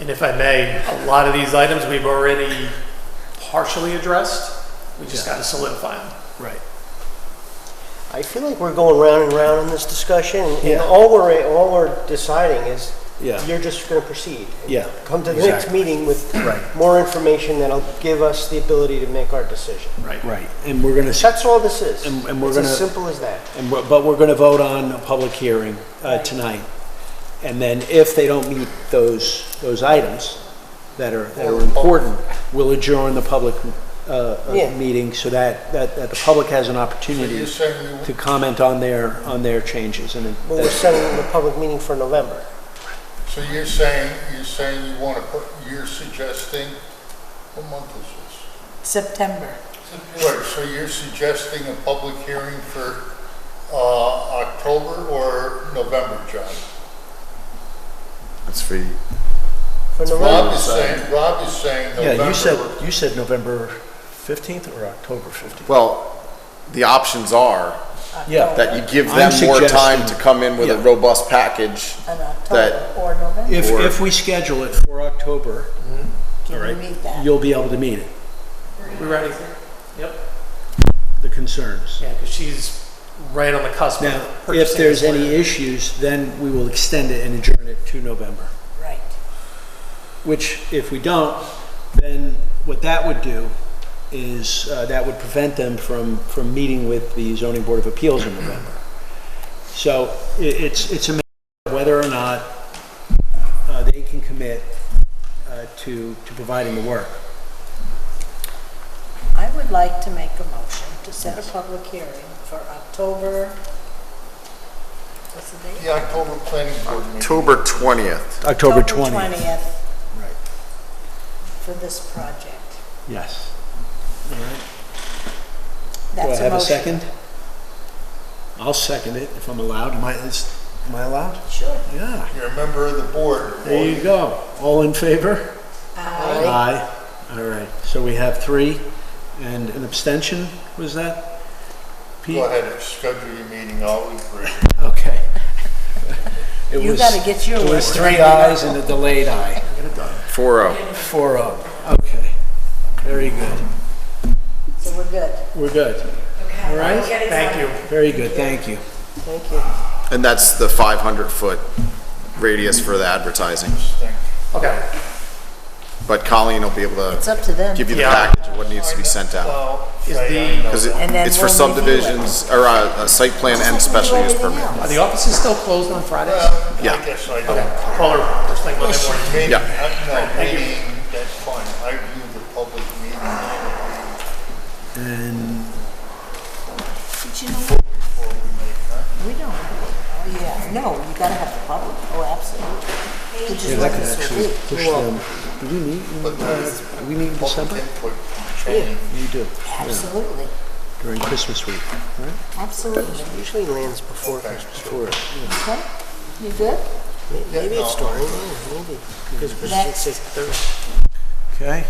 And if I may, a lot of these items we've already partially addressed. We just got to solidify them. Right. I feel like we're going round and round in this discussion, and Yeah. all we're, all we're deciding is, Yeah. you're just gonna proceed. Yeah, Come to the next exactly. meeting with Right. more information that'll give us the ability to make our decision. Right, and we're gonna, That's all this is. And- and we're It's as gonna- simple as that. and we're- but we're gonna vote on a public hearing uh, tonight. And then if they don't meet those, those items that are, that are important, we'll adjourn the public uh, uh, Yeah. meeting so that, that that the public has an opportunity You're saying you- to comment on their, on their changes. And it- Well, we're setting the public meeting for November. So you're saying, you're saying you want to put, you're suggesting, what month is September. this? Wait, so you're suggesting a public hearing for uh, October or November, John? That's for you. For Rob November, is saying, Rob is saying Yeah, you November. said, you said November 15th or October 15th? Well, the options are Yeah, that you give I'm them more time to suggesting- come in with a yeah. robust package. In October That- or November. if, Or- if we schedule it for October, Can we meet that? you'll be able to meet it, We ready? Yep. the concerns. Yeah, because she's right on the cusp. of Now, if purchasing there's this land. any issues, then we will extend it and adjourn it to November, Right. which if we don't, then what that would do is, uh, that would prevent them from, from meeting with the zoning board of appeals in November. So i it's, it's a matter of whether or not, uh, they can commit, uh, to, to providing the work. I would like to make a motion to set a public hearing for October, what's the date? The October planning board meeting. October 20th. October twentieth. 20th Right, for this project. yes. All right. Do I That's a have a motion. second? I'll second it if I'm allowed. Am I, is, am I allowed? Sure. Yeah. You're a member of the board. There you go. All in favor? Aye. Aye. All right. So we have three and an abstention, was that? Pete? Go ahead and schedule your meeting, I'll agree. Okay. It You was- gotta get your It was work three ayes and a delayed aye. 4-0. Four oh. Okay. Very good. So we're good. We're good. All right? Thank you. Very good. Thank you. thank you. And that's the 500-foot radius for the advertising. Okay. But Colleen will be able It's to up to them. give you the Yeah. package of what needs to be sent out. Well, Is Fran, the- I know Because that. And then it's for we'll review it. subdivisions, or uh, a site plan and special use permit. Are the offices still closed on Fridays? Well, Yeah. I guess I Okay. don't. Call her first thing Monday Listen, morning. meeting, Yeah. I- no, Thank you. meeting, that's fine, I view the public meeting And But you know what? before we make, huh? We don't. Oh, yeah. No, you gotta have the public. Oh, absolutely. Which yeah, is that what could this actually will push be. them. Do we meet, in, But uh, there's do we meet in public December? input Yeah. training. You do, Absolutely, during Christmas week, right? absolutely. Usually lands before Okay. Christmas. Or- Okay, you good? May- Maybe it's no. during, yeah, maybe. Christmas is Next. six thirty. Okay,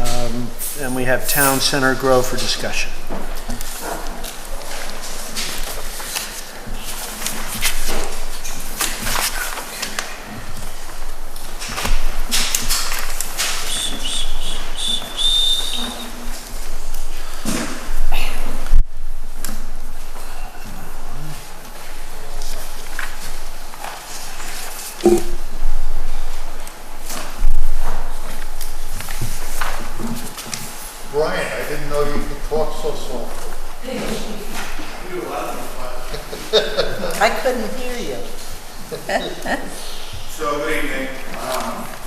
um, and we have Town Center Grow for discussion. Brian, I didn't know you could talk so soon. I couldn't hear you. So, good evening. Um, Um,